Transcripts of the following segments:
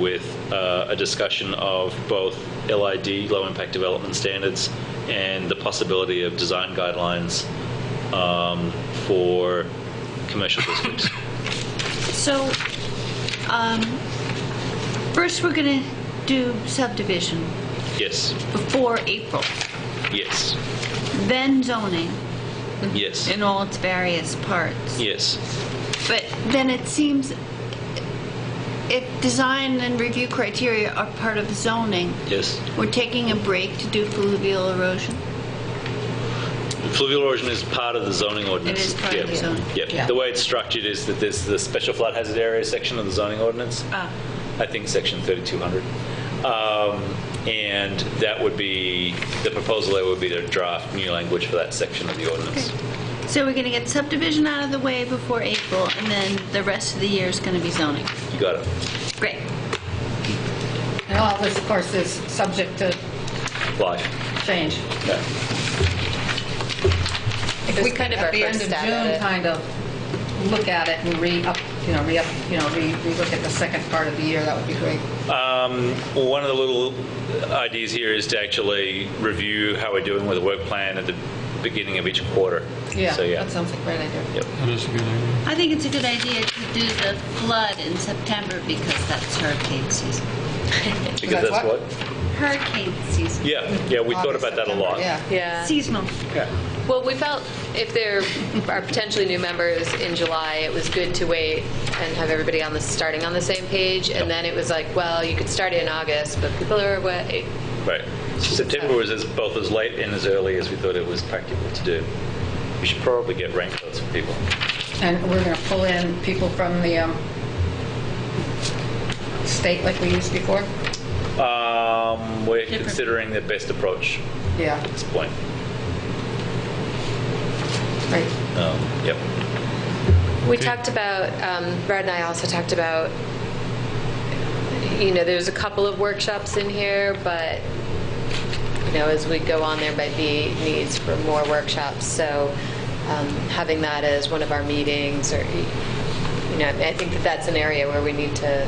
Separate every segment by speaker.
Speaker 1: with uh, a discussion of both LID, low impact development standards, and the possibility of design guidelines um, for commercial districts.
Speaker 2: So, um, first, we're going to do subdivision
Speaker 1: Yes,
Speaker 2: before April,
Speaker 1: yes,
Speaker 2: then zoning
Speaker 1: yes,
Speaker 2: in all its various parts.
Speaker 1: yes,
Speaker 2: But then it seems if design and review criteria are part of zoning,
Speaker 1: yes.
Speaker 2: we're taking a break to do fluvial erosion.
Speaker 1: Fluvial erosion is part of the zoning ordinance.
Speaker 2: It is part of the
Speaker 1: Yeah.
Speaker 2: zoning.
Speaker 1: Yeah, the way it's structured is that there's the special flood hazard area section of the zoning ordinance.
Speaker 2: Ah.
Speaker 1: I think section 3200. Um, And that would be, the proposal there would be to draft new language for that section of the ordinance.
Speaker 2: So we're going to get subdivision out of the way before April, and then the rest of the year is going to be zoning.
Speaker 1: You got it.
Speaker 2: Great.
Speaker 3: And all this, of course, is subject to
Speaker 1: Live.
Speaker 3: change.
Speaker 1: Yeah.
Speaker 3: If
Speaker 4: was
Speaker 3: we
Speaker 4: kind
Speaker 3: could,
Speaker 4: of
Speaker 3: at
Speaker 4: our
Speaker 3: the end
Speaker 4: first
Speaker 3: of
Speaker 4: stab at
Speaker 3: June,
Speaker 4: it.
Speaker 3: kind of look at it and re-up, you know, re-up, you know, re- re-look at the second part of the year, that would be great.
Speaker 1: Well, one of the little ideas here is to actually review how we're doing with the work plan at the beginning of each quarter.
Speaker 3: Yeah,
Speaker 1: So, yeah.
Speaker 3: that sounds like a great idea.
Speaker 1: Yep.
Speaker 5: That is a good idea.
Speaker 2: I think it's a good idea to do the flood in September because that's hurricane season.
Speaker 1: Because
Speaker 3: that's
Speaker 1: that's what?
Speaker 3: what?
Speaker 2: Hurricane season.
Speaker 1: Yeah, yeah, we thought
Speaker 3: August,
Speaker 1: about that a
Speaker 3: September,
Speaker 1: lot.
Speaker 3: Yeah.
Speaker 4: Yeah.
Speaker 2: Seasonal.
Speaker 4: Well, we felt if there are potentially new members in July, it was good to wait and have everybody on the, starting on the same page. And then it was like, well, you could start in August, but people are away.
Speaker 1: Right. September was as, both as late and as early as we thought it was practical to do. We should probably get raincoats for people.
Speaker 3: And we're going to pull in people from the um, state like we used before?
Speaker 1: Um, we're
Speaker 2: Different.
Speaker 1: considering the best approach
Speaker 3: Yeah,
Speaker 5: Mm-hmm.
Speaker 1: at this point.
Speaker 3: right.
Speaker 1: Um, yep.
Speaker 4: We talked about, um, Brad and I also talked about, you know, there's a couple of workshops in here, but, you know, as we go on, there might be needs for more workshops. So um, having that as one of our meetings or, you know, I think that that's an area where we need to,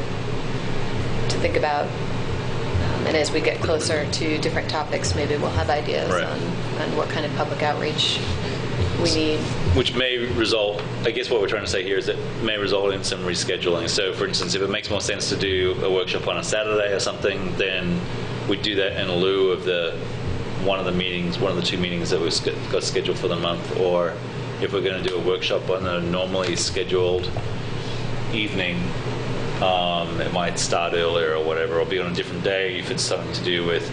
Speaker 4: to think about. Um, And as we get closer to different topics, maybe we'll have ideas
Speaker 1: Right.
Speaker 4: on, on what kind of public outreach we need.
Speaker 1: Which may result, I guess what we're trying to say here is it may result in some rescheduling. So, for instance, if it makes more sense to do a workshop on a Saturday or something, then we do that in lieu of the one of the meetings, one of the two meetings that we've sch- got scheduled for the month. Or if we're going to do a workshop on a normally scheduled evening, um, it might start earlier or whatever, or be on a different day if it's something to do with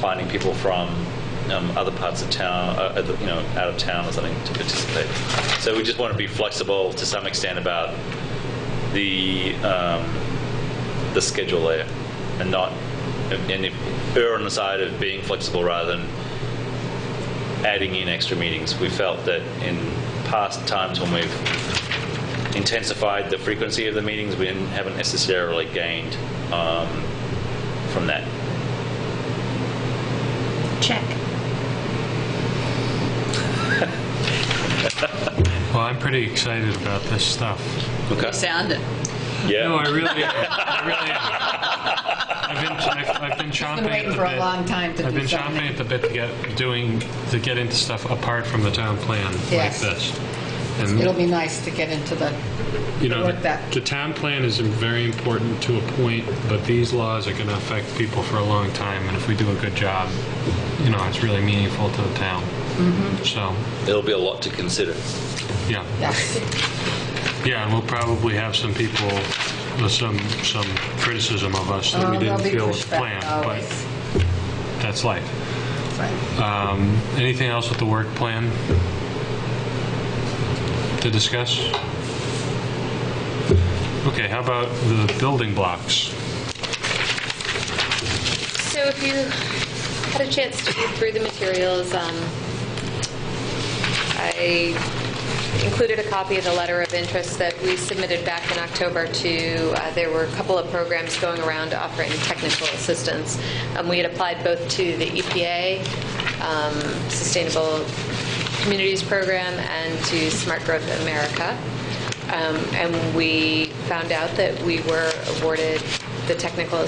Speaker 1: finding people from um, other parts of town, uh, other- you know, out of town or something to participate. So we just want to be flexible to some extent about the um, the schedule there, and not and if, err on the side of being flexible rather than adding in extra meetings. We felt that in past times when we've intensified the frequency of the meetings. We didn't, haven't necessarily gained um, from that.
Speaker 2: Check.
Speaker 5: Well, I'm pretty excited about this stuff.
Speaker 1: Okay.
Speaker 6: sound it.
Speaker 1: Yeah.
Speaker 5: No, I really am. I really am. I've been, I've, I've been chomping
Speaker 3: Been
Speaker 5: at
Speaker 3: waiting
Speaker 5: the
Speaker 3: for
Speaker 5: bit.
Speaker 3: a long time to
Speaker 5: I've
Speaker 3: do
Speaker 5: been chomping
Speaker 3: something.
Speaker 5: at the bit to get doing to get into stuff apart from the town plan
Speaker 3: Yes.
Speaker 5: like this. And
Speaker 3: It'll be nice to get into the,
Speaker 5: you know,
Speaker 3: work
Speaker 5: the,
Speaker 3: that.
Speaker 5: the town plan is very important to a point, but these laws are going to affect people for a long time. And if we do a good job, you know, it's really meaningful to the town.
Speaker 3: Mm-hmm.
Speaker 5: So,
Speaker 1: There'll be a lot to consider.
Speaker 5: yeah.
Speaker 3: yes.
Speaker 5: Yeah, and we'll probably have some people, uh, some, some criticism of us that we
Speaker 3: Oh, there'll
Speaker 5: didn't
Speaker 3: be
Speaker 5: feel was
Speaker 3: pushback
Speaker 5: planned, but
Speaker 3: always.
Speaker 5: that's life.
Speaker 3: Right.
Speaker 5: Um, Anything else with the work plan to discuss? Okay, how about the building blocks?
Speaker 4: So if you had a chance to read through the materials, um, I included a copy of the letter of interest that we submitted back in October to, uh, there were a couple of programs going around offering technical assistance. Um, We had applied both to the EPA, um, Sustainable Communities Program, and to Smart Growth America. Um, And we found out that we were awarded the technical